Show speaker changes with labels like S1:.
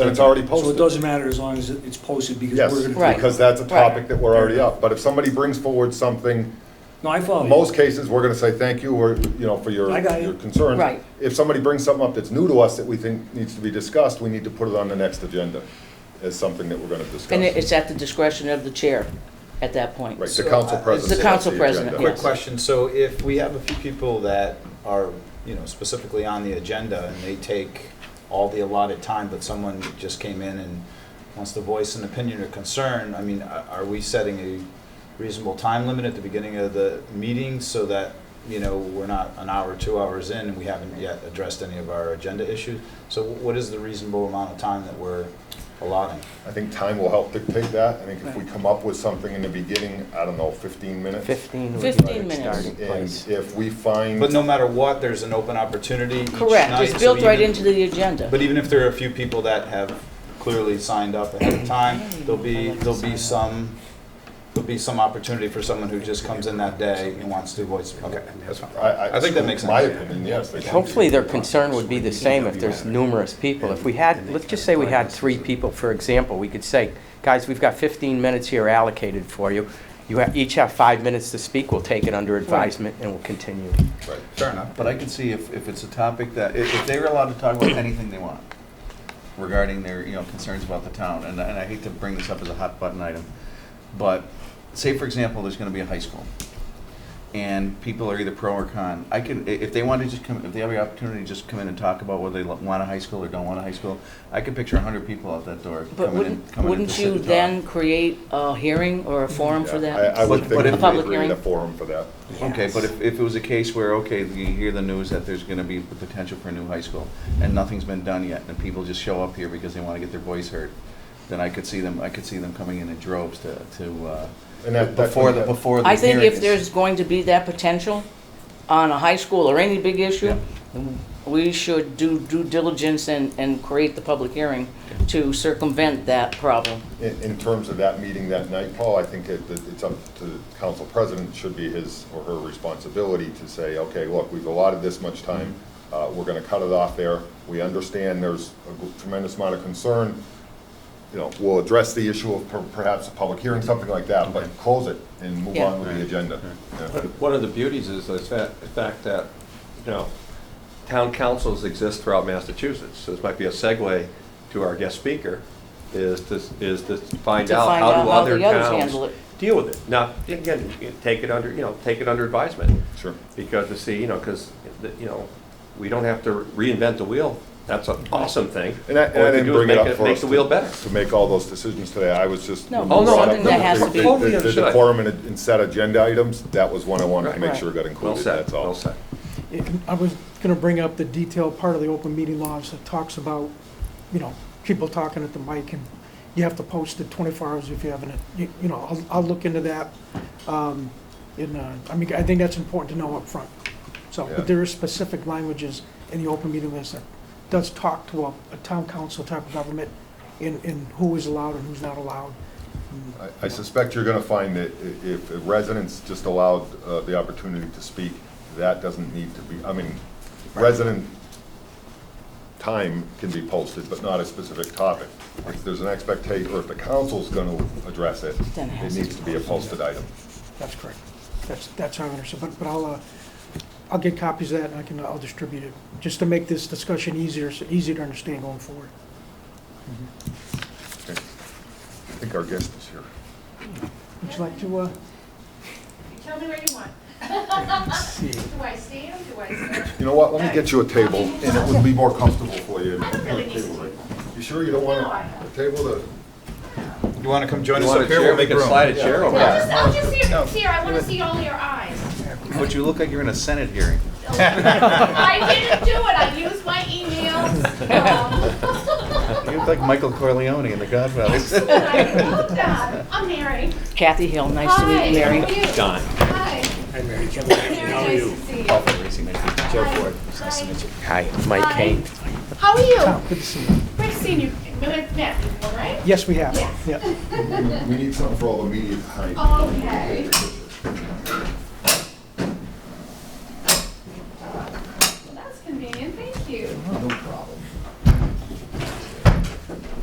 S1: Then it's already
S2: So it
S1: posted.
S2: doesn't matter as long as it- it's posted because
S1: Yes,
S2: we're gonna.
S3: Right.
S1: because that's a topic that we're
S2: Right.
S1: already up. But if somebody brings forward something,
S2: No, I follow you.
S1: most cases, we're gonna say thank you or, you know, for your,
S2: I got you.
S1: your concerns.
S3: Right.
S1: If somebody brings something up that's new to us that we think needs to be discussed, we need to put it on the next agenda as something that we're gonna discuss.
S3: And it- it's at the discretion of the chair at that point.
S1: Right, the council
S4: So, uh,
S1: president.
S3: The
S1: sets
S3: council president,
S1: agenda.
S4: Quick
S3: Yes.
S4: question, so if we have a few people that are, you know, specifically on the agenda and they take all the allotted time, but someone just came in and wants to voice an opinion or concern, I mean, a- are we setting a reasonable time limit at the beginning of the meeting so that, you know, we're not an hour, two hours in and we haven't yet addressed any of our agenda issues? So wh- what is the reasonable amount of time that we're allotting?
S1: I think time will help dictate that. I think if we come up with something in the beginning, I don't know, fifteen minutes.
S5: 15 would be
S3: 15
S5: the
S3: minutes.
S5: starting
S1: And
S5: place.
S1: if we find.
S4: But no matter what, there's an open opportunity each night.
S3: Correct, it's
S4: so
S3: built right
S4: even-
S3: into the agenda.
S4: But even if there are a few people that have clearly signed up ahead of time, there'll be, there'll be some, there'll be some opportunity for someone who just comes in that day and wants to voice, okay, that's fine.
S1: I,
S4: I think that makes
S1: My
S4: sense.
S1: opinion, yes. they should be.
S5: Hopefully, their concern would be the same if there's numerous people. If we had, let's just say we had three people, for example, we could say, guys, we've got 15 minutes here allocated for you. You ha- each have five minutes to speak. We'll take it under advisement and we'll continue.
S1: Right.
S4: Fair enough.
S6: But I can see if, if it's a topic that, if, if they're allowed to talk about anything they want regarding their, you know, concerns about the town, and, and I hate to bring this up as a hot button item, but say, for example, there's gonna be a high school, and people are either pro or con, I can, i- if they want to just come, if they have the opportunity to just come in and talk about whether they lo- want a high school or don't want a high school, I could picture a hundred people out that door
S3: But
S6: coming in,
S3: wouldn't,
S6: coming in to
S3: wouldn't
S6: sit
S3: you
S6: and talk.
S3: then create a hearing or a forum for
S1: Yeah,
S3: that?
S1: I, I would
S6: But-
S1: think
S6: but
S1: we
S6: if-
S3: Public
S1: create a
S3: hearing?
S1: forum for that.
S6: Okay, but if, if it was a case where, okay, you hear the news that there's gonna be the potential for a new high school, and nothing's been done yet, and people just show up here because they wanna get their voice heard, then I could see them, I could see them coming in in droves to, to,
S1: And
S6: uh,
S1: that- that-
S6: before the, before the
S3: I think
S6: hearing
S3: if
S6: is-
S3: there's going to be that potential on a high school or any big issue,
S6: Yeah.
S3: we should do due diligence and, and create the public hearing to circumvent that problem.
S1: In, in terms of that meeting that night, Paul, I think it, that it's up to the council president, should be his or her responsibility to say, okay, look, we've allotted this much time, uh, we're gonna cut it off there, we understand there's a gr- tremendous amount of concern, you know, we'll address the issue of per- perhaps a public hearing, something like that, but close it and move
S3: Yeah.
S1: on with the agenda. Yeah.
S7: One of the beauties is the fa- the fact that, you know, town councils exist throughout Massachusetts. So this might be a segue to our guest speaker, is to, is to find
S3: To
S7: out
S3: find
S7: how
S3: out
S7: do
S3: how
S7: other
S3: the others handle
S7: towns
S3: it.
S7: deal with it. Now, again, you take it under, you know, take it under advisement.
S1: Sure.
S7: Because to see, you know, because, you know, we don't have to reinvent the wheel. That's an awesome thing.
S1: And I,
S7: All
S1: and
S7: we
S1: I
S7: can
S1: didn't
S7: do is
S1: bring it
S7: make
S1: up for us.
S7: Make the
S1: to-
S7: wheel better.
S1: To make all those decisions today, I was just.
S3: No,
S1: when
S7: Oh,
S1: you
S7: no,
S1: brought
S7: I
S1: up
S7: think that
S1: the-
S7: has to
S1: the-
S7: be-
S1: the-
S7: Totally
S1: The
S7: understood.
S1: decorum and, and set agenda items, that was one I wanted to
S7: Right.
S1: make
S3: Right.
S1: sure got
S7: Well
S1: included,
S7: said,
S1: that's all.
S7: well said.
S8: Yeah, I was going to bring up the detailed part of the open meeting laws that talks about, you know, people talking at the mic, and you have to post it 24 hours if you haven't, you you know, I'll, I'll look into that. Um, In, uh, I mean, I think that's important to know up front. So,
S1: Yeah.
S8: but there are specific languages in the open meeting laws that does talk to a, a town council type of government in, in who is allowed and who's not allowed.
S1: I- I suspect you're gonna find that i- if residents just allowed, uh, the opportunity to speak, that doesn't need to be, I mean, resident time can be posted, but not a specific topic. If there's an expectation, or if the council's gonna address it,
S3: Then it
S1: it
S3: has to
S1: needs to be a posted item.
S8: That's correct. That's, that's how I understand, but, but I'll, uh, I'll get copies of that and I can, I'll distribute it, just to make this discussion easier, so easier to understand going forward.
S1: Okay. I think our guest is here.
S8: Would you like to, uh,
S9: Tell me where you want.
S8: see?
S9: Do I stand? Do I sit?
S1: You know what, let me get you a table, and it would be more comfortable for you.
S9: I don't really need a table.
S1: You sure you don't want
S9: No, I
S1: a
S9: don't.
S1: table to?
S4: You want to come join
S7: You
S4: us
S7: want
S4: up
S7: a
S4: here?
S7: chair,
S4: We'll
S7: we
S4: make
S7: can
S4: room.
S7: slide a chair over
S9: I'll
S7: there.
S9: just, I'll just see your, see her. I want to see all your eyes.
S6: But you look like you're in a senate hearing.
S9: I didn't do it. I used my emails.
S6: You look like Michael Corleone in The Godfather.
S9: Um, I love that. I'm Mary.
S3: Kathy Hill, nice to meet you,
S9: Hi,
S3: Mary.
S9: how are you?
S7: Don.
S9: Hi.
S2: Hi, Mary.
S9: Mary,
S2: How are
S9: nice
S2: you?
S9: to see you.
S4: Chair
S9: Hi.
S4: forward. It's Oh, nice to meet you.
S5: Hi, Mike
S9: Hi.
S5: Kane.
S9: How are
S8: Tom,
S9: you?
S8: good to see you.
S9: Great seeing you. We have met before, right?
S8: Yes, we have,
S9: Yes.
S8: yeah.
S1: We need something for all the media behind.
S9: Okay.